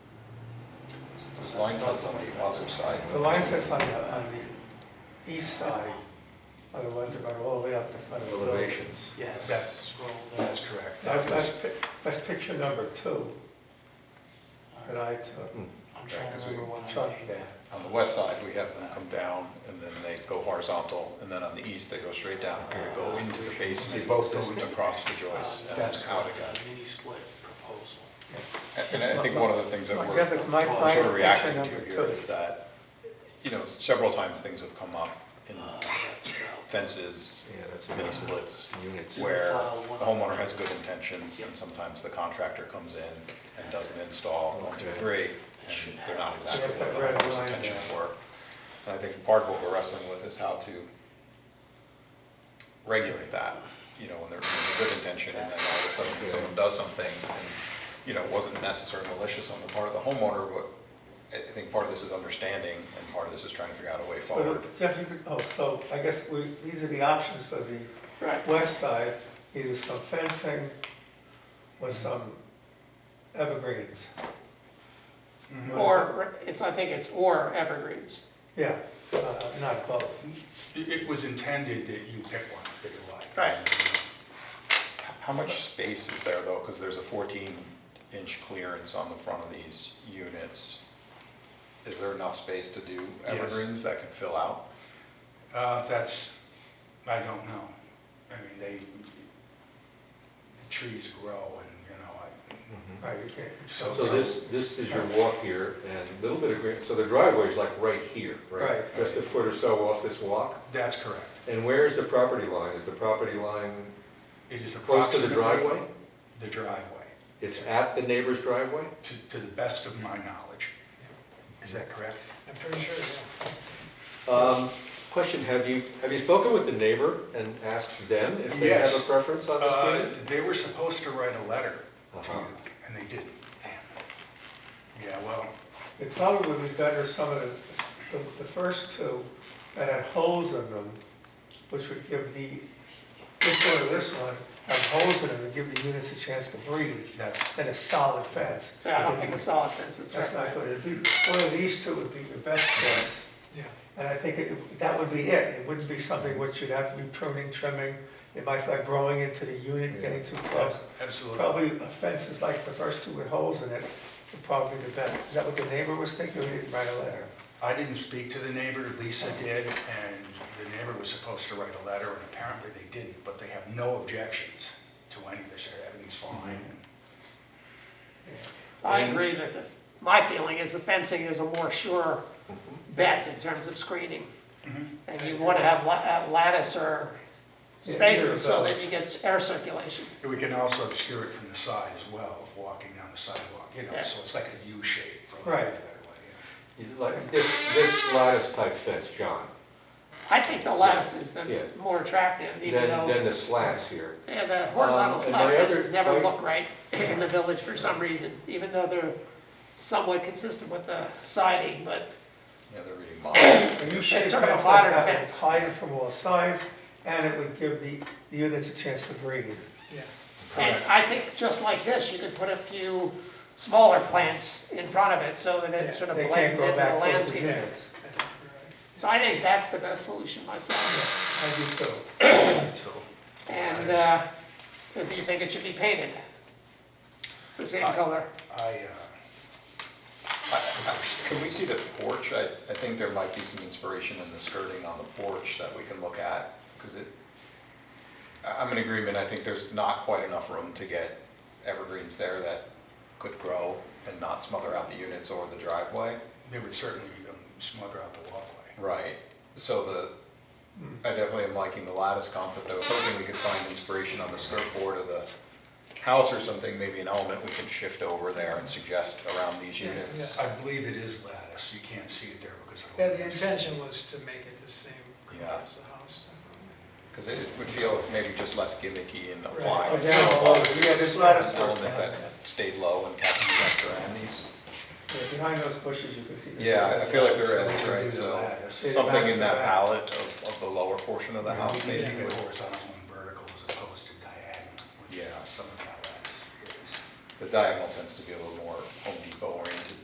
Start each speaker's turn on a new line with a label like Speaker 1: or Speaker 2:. Speaker 1: Because Lineshead's on the other side.
Speaker 2: The line sets on the, on the east side are the ones that go all the way up to Pleasant Hill.
Speaker 1: Elevations.
Speaker 3: Yes.
Speaker 4: That's-
Speaker 3: Scroll down.
Speaker 4: That's correct.
Speaker 2: That's, that's, pic- that's picture number two that I took.
Speaker 1: Hmm.
Speaker 3: I'm trying to remember what I
Speaker 2: Chuck
Speaker 3: named
Speaker 2: there.
Speaker 3: that.
Speaker 1: On the west side, we have them come down, and then they go horizontal, and then on the east, they go straight down, and they go into the basement.
Speaker 4: They both go
Speaker 1: and
Speaker 4: into the
Speaker 1: Across the
Speaker 3: Uh,
Speaker 1: joists. and
Speaker 4: That's
Speaker 1: out
Speaker 4: correct.
Speaker 1: again.
Speaker 3: a Mini split proposal.
Speaker 1: And and I think one of the things that
Speaker 2: For
Speaker 1: we're
Speaker 2: example, it's my
Speaker 3: sort of
Speaker 1: sort of
Speaker 2: client picture
Speaker 1: reacting
Speaker 2: number
Speaker 1: to here
Speaker 2: two.
Speaker 1: is that, you know, several times things have come up in
Speaker 3: Uh, That's about,
Speaker 1: fences,
Speaker 5: Yeah, that's
Speaker 1: mini
Speaker 5: what-
Speaker 1: splits,
Speaker 5: Units.
Speaker 1: where the homeowner has good intentions, and sometimes the contractor comes in and does an install, one, two, three, and they're not exactly
Speaker 2: Yes,
Speaker 1: what
Speaker 2: I've
Speaker 1: the
Speaker 2: read
Speaker 1: owner's
Speaker 2: mine.
Speaker 1: intentions were. And I think part of what we're wrestling with is how to regulate that, you know, when there's a good intention, and then all of a sudden, someone does something, and, you know, it wasn't necessarily malicious on the part of the homeowner, but I I think part of this is understanding, and part of this is trying to figure out a way forward.
Speaker 2: So Jeff, you could, oh, so I guess we, these are the options for the
Speaker 3: right,
Speaker 2: west side, either some fencing or some evergreens.
Speaker 6: Mm-hmm. Or, it's, I think it's or evergreens.
Speaker 2: Yeah, uh, not both.
Speaker 4: It, it was intended that you pick one that you like.
Speaker 6: Right.
Speaker 1: How much space is there though? Because there's a 14 inch clearance on the front of these units. Is there enough space to do
Speaker 4: Yes.
Speaker 1: evergreens that can fill out?
Speaker 4: Uh, that's, I don't know. I mean, they, the trees grow and, you know,
Speaker 5: Mhm.
Speaker 2: Right, you can't.
Speaker 4: I, so.
Speaker 5: So this, this is your walk here, and a little bit of green, so the driveway is like right here, right?
Speaker 2: Right.
Speaker 5: Just a foot or so off this walk,
Speaker 4: That's correct.
Speaker 5: and where's the property line? Is the property line
Speaker 4: It is
Speaker 5: close to the
Speaker 4: approximately
Speaker 5: driveway?
Speaker 4: The driveway,
Speaker 5: It's at the neighbor's driveway?
Speaker 4: to, to the best of my knowledge. Is that correct?
Speaker 3: I'm pretty sure, yeah.
Speaker 5: Um, Question, have you, have you spoken with the neighbor and asked them if they have a
Speaker 4: Yes.
Speaker 5: preference on this
Speaker 4: Uh,
Speaker 5: thing?
Speaker 4: They were supposed to write a letter to you,
Speaker 5: Uh-huh.
Speaker 4: and they didn't. Yeah, well,
Speaker 2: It probably would be better some of the, the- the first two that had holes in them, which would give the, this one or this one, have holes in them and give the units a chance to breathe,
Speaker 4: that's,
Speaker 2: and a solid fence.
Speaker 6: Yeah, I don't think a solid fence is
Speaker 2: That's not
Speaker 6: right.
Speaker 2: good. It'd be, one of these two would be the best fence.
Speaker 3: Yeah.
Speaker 2: And I think it- that would be it. It wouldn't be something which you'd have to be pruning, trimming. It might start growing into the unit, getting too close.
Speaker 4: absolutely.
Speaker 2: Probably a fence is like the first two with holes in it, would probably be the best. Is that what the neighbor was thinking? Or he didn't write a letter?
Speaker 4: I didn't speak to the neighbor, Lisa did, and the neighbor was supposed to write a letter, and apparently they didn't, but they have no objections to any of this, everything's fine.
Speaker 6: I agree that the, my feeling is the fencing is a more sure bet in terms of screening.
Speaker 2: Mm-hmm.
Speaker 6: And you want to have la- have lattice or
Speaker 2: Yeah, either of
Speaker 6: spaces so
Speaker 2: those.
Speaker 6: that you get air circulation.
Speaker 4: And We can also obscure it from the side as well, if walking down the sidewalk, you know,
Speaker 6: Yeah.
Speaker 4: so it's like a U shape. for
Speaker 2: Right.
Speaker 4: lack of a better way, yeah.
Speaker 5: You'd like- This, this lattice type fence, John,
Speaker 6: I think the lattice is
Speaker 5: Yeah.
Speaker 6: the more attractive, even
Speaker 5: than,
Speaker 6: though
Speaker 5: than the slats here.
Speaker 6: yeah, the
Speaker 5: Um,
Speaker 6: horizontal
Speaker 5: and
Speaker 6: slab
Speaker 5: my other
Speaker 6: fences never
Speaker 5: point-
Speaker 6: look right in the village for some reason, even though they're somewhat consistent with the siding, but
Speaker 1: Yeah, they're reading mine.
Speaker 2: And you should
Speaker 6: It's sort of a
Speaker 2: fence
Speaker 6: modern
Speaker 2: that would
Speaker 6: fence.
Speaker 2: hide it from all sides, and it would give the the units a chance to breathe.
Speaker 3: Yeah.
Speaker 6: And I think just like this, you could put a few smaller plants in front of it so that it sort of
Speaker 2: They can't
Speaker 6: blends
Speaker 2: go
Speaker 6: into the
Speaker 2: back towards the
Speaker 6: landscape.
Speaker 2: units.
Speaker 3: I think you're right.
Speaker 6: So I think that's the best solution myself.
Speaker 2: I do too.
Speaker 4: So,
Speaker 6: And, uh, do you think it should be painted? The same color?
Speaker 4: I, uh,
Speaker 1: Can we see the porch? I, I think there might be some inspiration in the skirting on the porch that we can look at, because it, I- I'm in agreement, I think there's not quite enough room to get evergreens there that could grow and not smother out the units or the driveway.
Speaker 4: uh, they would certainly um, smother out the walkway.
Speaker 1: Right, so the, I definitely am liking the lattice concept, I was hoping we could find inspiration on the skirt board of the house or something, maybe an element we can shift over there and suggest around these
Speaker 3: Yeah,
Speaker 1: units.
Speaker 4: I believe it is lattice, you can't see it there because. of
Speaker 3: Yeah, the intention was to make it the same
Speaker 1: Yeah.
Speaker 3: color as the house.
Speaker 1: Because it would feel maybe just less gimmicky and apply.
Speaker 2: Oh, down below, yeah, this lattice
Speaker 1: An
Speaker 2: work
Speaker 1: element that
Speaker 2: down
Speaker 1: stayed low and kept the structure around these.
Speaker 2: there. Yeah, Behind those bushes, you can see. the-
Speaker 1: Yeah, I- I feel like there
Speaker 4: We
Speaker 1: is,
Speaker 4: can do
Speaker 1: right,
Speaker 4: the
Speaker 1: so
Speaker 4: lattice.
Speaker 1: something in that palette of, of the lower portion of the
Speaker 4: We
Speaker 1: house
Speaker 4: can
Speaker 1: maybe
Speaker 4: keep it
Speaker 1: would.
Speaker 4: horizontal and vertical as opposed to diagonal, which uh,
Speaker 1: Yeah.
Speaker 4: some of that lattice is.
Speaker 1: The diagonal tends to be a little more Home Depot